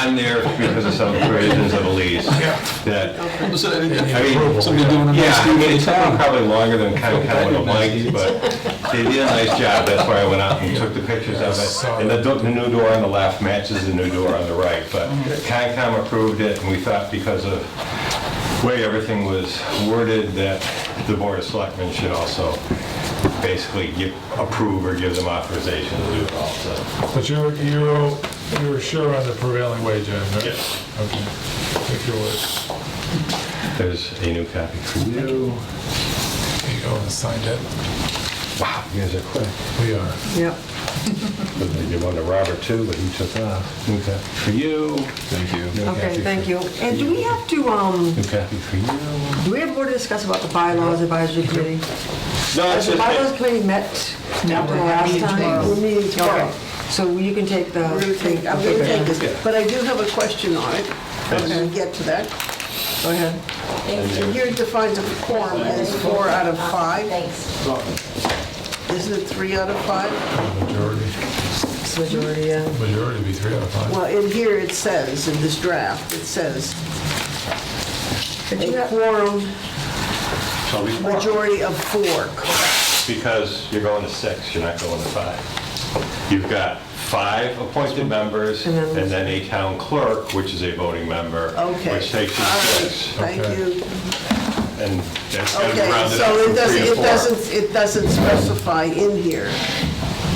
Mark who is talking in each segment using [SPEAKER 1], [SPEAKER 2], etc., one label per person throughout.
[SPEAKER 1] I'm there because of some provisions of a lease that,
[SPEAKER 2] So, I mean,
[SPEAKER 1] I mean,
[SPEAKER 2] Somebody doing a
[SPEAKER 1] yeah,
[SPEAKER 2] nice
[SPEAKER 1] I
[SPEAKER 2] deed
[SPEAKER 1] mean,
[SPEAKER 2] for
[SPEAKER 1] it
[SPEAKER 2] the
[SPEAKER 1] took them
[SPEAKER 2] town.
[SPEAKER 1] probably longer than kind of, kind of would have liked, but they did a nice job, that's why I went out and took the pictures of it. And the, do- the new door on the left matches the new door on the right, but Concom approved it, and we thought because of the way everything was worded, that the Board of Selectmen should also basically give, approve or give them authorization to do it also.
[SPEAKER 3] But you're, you're, you're sure on the prevailing wage end, right?
[SPEAKER 1] Yes.
[SPEAKER 3] Okay, take your word.
[SPEAKER 1] There's a new copy for you.
[SPEAKER 3] There you go, oh and sign that.
[SPEAKER 1] Wow, you guys are quick.
[SPEAKER 3] We are.
[SPEAKER 4] Yep.
[SPEAKER 1] They did one to Robert too, but he took off. New copy for you. Thank you.
[SPEAKER 4] Okay, thank you. And do we have to, um,
[SPEAKER 1] New copy for you. No,
[SPEAKER 4] do we have more to discuss about the bylaws advisory committee? Has the bylaws committee met after the last
[SPEAKER 5] meeting
[SPEAKER 4] time?
[SPEAKER 5] tomorrow. We're meeting
[SPEAKER 4] Okay.
[SPEAKER 5] tomorrow.
[SPEAKER 4] So you can take the.
[SPEAKER 5] We're gonna take, I'm gonna take this, but I do have a question on it, when we get to that.
[SPEAKER 4] Go ahead.
[SPEAKER 5] And here it defines a quorum as four out of five,
[SPEAKER 6] Thanks.
[SPEAKER 5] isn't it three out of five?
[SPEAKER 3] Majority,
[SPEAKER 4] Majority, yeah.
[SPEAKER 3] majority would be three out of five.
[SPEAKER 5] Well, in here it says, in this draft, it says,
[SPEAKER 4] you
[SPEAKER 5] a
[SPEAKER 4] have-
[SPEAKER 5] quorum,
[SPEAKER 1] So we-
[SPEAKER 5] majority of four.
[SPEAKER 1] Because you're going to six, you're not going to five. You've got five appointed members
[SPEAKER 4] And then-
[SPEAKER 1] and then a town clerk, which is a voting member.
[SPEAKER 5] Okay.
[SPEAKER 1] Which takes you
[SPEAKER 5] All right,
[SPEAKER 1] six.
[SPEAKER 5] Thank you.
[SPEAKER 1] And that's got to be
[SPEAKER 5] Okay,
[SPEAKER 1] rounded up
[SPEAKER 5] so
[SPEAKER 1] from
[SPEAKER 5] it
[SPEAKER 1] three
[SPEAKER 5] doesn't,
[SPEAKER 1] to
[SPEAKER 5] it
[SPEAKER 1] four.
[SPEAKER 5] doesn't, it doesn't specify in here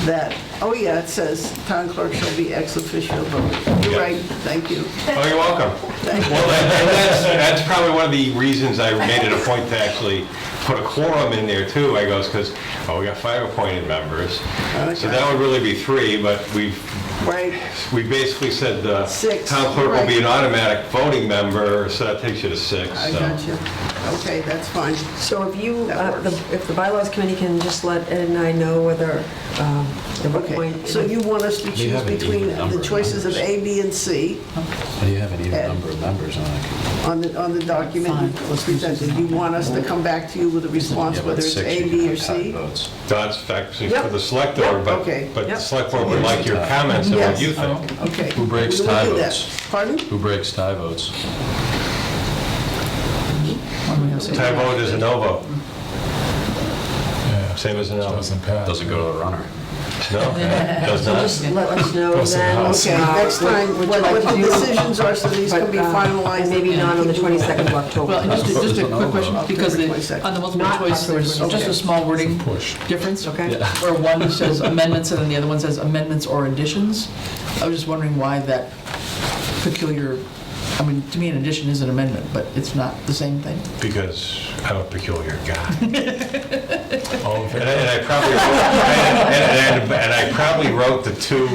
[SPEAKER 5] that, oh yeah, it says town clerk shall be ex officio voting.
[SPEAKER 1] Yeah.
[SPEAKER 5] You're right, thank you.
[SPEAKER 1] Oh, you're welcome. Well, that- and that's, that's probably one of the reasons I made it a point to actually put a quorum in there too. I goes, because, oh, we got five appointed members. So that would really be three, but we've,
[SPEAKER 5] Right,
[SPEAKER 1] we basically said the
[SPEAKER 5] Six,
[SPEAKER 1] town clerk will be an
[SPEAKER 5] right.
[SPEAKER 1] automatic voting member, so that takes you to six.
[SPEAKER 5] I
[SPEAKER 1] so.
[SPEAKER 5] got you. Okay, that's fine.
[SPEAKER 4] So if you,
[SPEAKER 5] That
[SPEAKER 4] uh, the-
[SPEAKER 5] works.
[SPEAKER 4] if the bylaws committee can just let Ed and I know whether, um, at what
[SPEAKER 5] Okay,
[SPEAKER 4] point.
[SPEAKER 5] so you want us to choose
[SPEAKER 7] haven't
[SPEAKER 5] between
[SPEAKER 7] even numbered
[SPEAKER 5] the choices of A, B, and C
[SPEAKER 7] Do you have an even
[SPEAKER 5] Ed.
[SPEAKER 7] number of members on it?
[SPEAKER 5] on the, on the document that was presented? You want us to come back to you with a response,
[SPEAKER 7] Yeah, but
[SPEAKER 5] whether it's
[SPEAKER 7] six,
[SPEAKER 5] A,
[SPEAKER 7] you
[SPEAKER 5] B,
[SPEAKER 7] can
[SPEAKER 5] or
[SPEAKER 7] have tied
[SPEAKER 5] C?
[SPEAKER 7] votes.
[SPEAKER 1] That's actually
[SPEAKER 4] Yep.
[SPEAKER 1] for the select board, but,
[SPEAKER 5] okay.
[SPEAKER 1] but the
[SPEAKER 4] Yep.
[SPEAKER 1] select board would like your comments and what
[SPEAKER 5] Yes.
[SPEAKER 1] you think.
[SPEAKER 5] Okay.
[SPEAKER 7] Who breaks
[SPEAKER 5] We will do
[SPEAKER 7] tie
[SPEAKER 5] that.
[SPEAKER 7] votes?
[SPEAKER 5] Pardon?
[SPEAKER 7] Who breaks tie votes?
[SPEAKER 1] Tie vote is a no vote,
[SPEAKER 3] Yeah.
[SPEAKER 1] same as a no.
[SPEAKER 3] Doesn't pass.
[SPEAKER 7] Doesn't go to the runner.
[SPEAKER 1] No, does not.
[SPEAKER 4] Just let us know
[SPEAKER 3] Close to the
[SPEAKER 4] then.
[SPEAKER 3] house.
[SPEAKER 5] Okay,
[SPEAKER 4] uh,
[SPEAKER 5] next
[SPEAKER 4] what-
[SPEAKER 5] time,
[SPEAKER 4] what
[SPEAKER 5] what
[SPEAKER 4] you
[SPEAKER 5] what
[SPEAKER 4] like
[SPEAKER 5] the
[SPEAKER 4] to do,
[SPEAKER 5] decisions are, so these can be
[SPEAKER 4] but, uh,
[SPEAKER 5] finalized.
[SPEAKER 4] and Maybe not on the 22nd of October.
[SPEAKER 8] Well, and just, a- just a quick question,
[SPEAKER 5] October
[SPEAKER 8] because the-
[SPEAKER 5] 22nd.
[SPEAKER 8] on the multiple
[SPEAKER 4] Not
[SPEAKER 8] choice,
[SPEAKER 4] October
[SPEAKER 8] there's just
[SPEAKER 5] 22nd.
[SPEAKER 8] a small wording
[SPEAKER 3] Push.
[SPEAKER 8] difference.
[SPEAKER 4] Okay.
[SPEAKER 8] Where one says amendments and then the other one says amendments or additions. I was just wondering why that peculiar, I mean, to me, an addition is an amendment, but it's not the same thing.
[SPEAKER 1] Because I'm a peculiar guy.
[SPEAKER 3] All in
[SPEAKER 1] And I- and I
[SPEAKER 3] favor?
[SPEAKER 1] probably, wrote- and and- and I probably wrote the two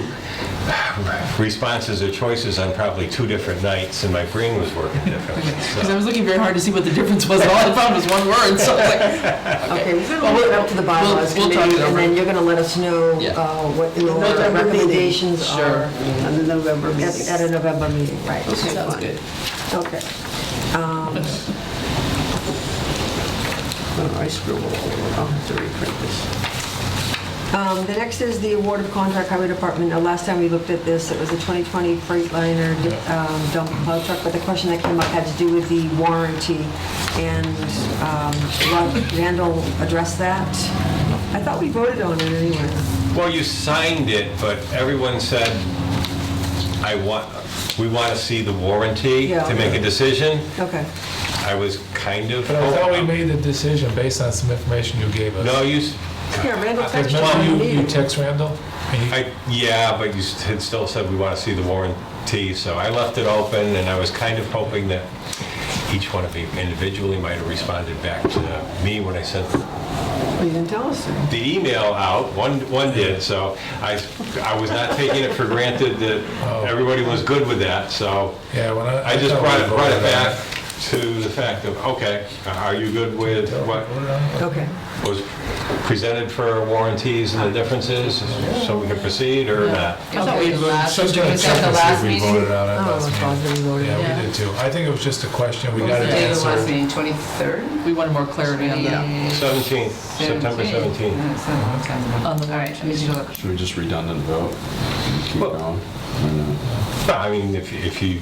[SPEAKER 1] responses or choices on probably two different nights, and my brain was working differently.
[SPEAKER 8] Because I was looking very hard to see what the difference was, and all I found was one word, so I was like,
[SPEAKER 4] Okay, we're
[SPEAKER 8] Well,
[SPEAKER 4] gonna leave it up to the bylaws
[SPEAKER 8] we'll- we'll talk
[SPEAKER 4] committee,
[SPEAKER 8] it
[SPEAKER 4] and
[SPEAKER 8] over.
[SPEAKER 4] then you're gonna let us know
[SPEAKER 8] Yeah.
[SPEAKER 4] uh, what your
[SPEAKER 5] November meeting.
[SPEAKER 4] recommendations are
[SPEAKER 5] On the November
[SPEAKER 4] at
[SPEAKER 5] meeting.
[SPEAKER 4] at a November meeting, right?
[SPEAKER 5] Okay, fine.
[SPEAKER 4] Okay.
[SPEAKER 5] Oh, I scribbled all over. I'll have to reprint this.
[SPEAKER 4] Um, The next is the award of contract highway department. Uh, Last time we looked at this, it was a 2020 Freightliner um, dump plow truck, but the question that came up had to do with the warranty, and um, Rod Randall addressed that. I thought we voted on it anyway.
[SPEAKER 1] Well, you signed it, but everyone said, I want, we want to see the warranty
[SPEAKER 4] Yeah.
[SPEAKER 1] to make a decision.
[SPEAKER 4] Okay.
[SPEAKER 1] I was kind of.
[SPEAKER 3] But I thought we made the decision based on some information you gave us.
[SPEAKER 1] No, you, s-
[SPEAKER 4] Yeah, Randall
[SPEAKER 3] Because
[SPEAKER 4] texted
[SPEAKER 3] remember
[SPEAKER 4] me.
[SPEAKER 3] you, you text Randall? and you-
[SPEAKER 1] I, yeah, but you s- had still said we want to see the warranty, so I left it open, and I was kind of hoping that each one of you individually might have responded back to me when I sent
[SPEAKER 5] Well, you didn't tell us.
[SPEAKER 1] the email out, one, one did, so I, I was not taking it for granted
[SPEAKER 3] Oh.
[SPEAKER 1] that everybody was good with that, so
[SPEAKER 3] Yeah, when I.
[SPEAKER 1] I just
[SPEAKER 3] thought we
[SPEAKER 1] brought it, brought it
[SPEAKER 3] voted on
[SPEAKER 1] back to the fact of, okay, are you good with what
[SPEAKER 3] Voted on it?
[SPEAKER 4] Okay.
[SPEAKER 1] was presented for warranties and the differences, so we can proceed or not?
[SPEAKER 6] I thought we had last,
[SPEAKER 3] Some
[SPEAKER 6] was
[SPEAKER 3] kind of check
[SPEAKER 6] that the
[SPEAKER 3] and see if
[SPEAKER 6] last
[SPEAKER 3] we
[SPEAKER 6] meeting?
[SPEAKER 3] voted on it
[SPEAKER 4] Oh,
[SPEAKER 3] last
[SPEAKER 4] it's
[SPEAKER 3] meeting.
[SPEAKER 4] Rod we voted.
[SPEAKER 3] Yeah,
[SPEAKER 4] on.
[SPEAKER 3] we
[SPEAKER 6] Yeah.
[SPEAKER 3] did too. I think it was just a question, we got
[SPEAKER 6] The
[SPEAKER 3] an
[SPEAKER 6] day of the last
[SPEAKER 3] answer.
[SPEAKER 6] meeting, 23rd?
[SPEAKER 8] we want more clarity on the,
[SPEAKER 1] 17th, September 17th.
[SPEAKER 6] All
[SPEAKER 8] on the
[SPEAKER 6] right, I need you to look.
[SPEAKER 7] Should we just redundant vote and keep
[SPEAKER 1] Well-
[SPEAKER 7] going? Or no?
[SPEAKER 1] No, I mean, if, if you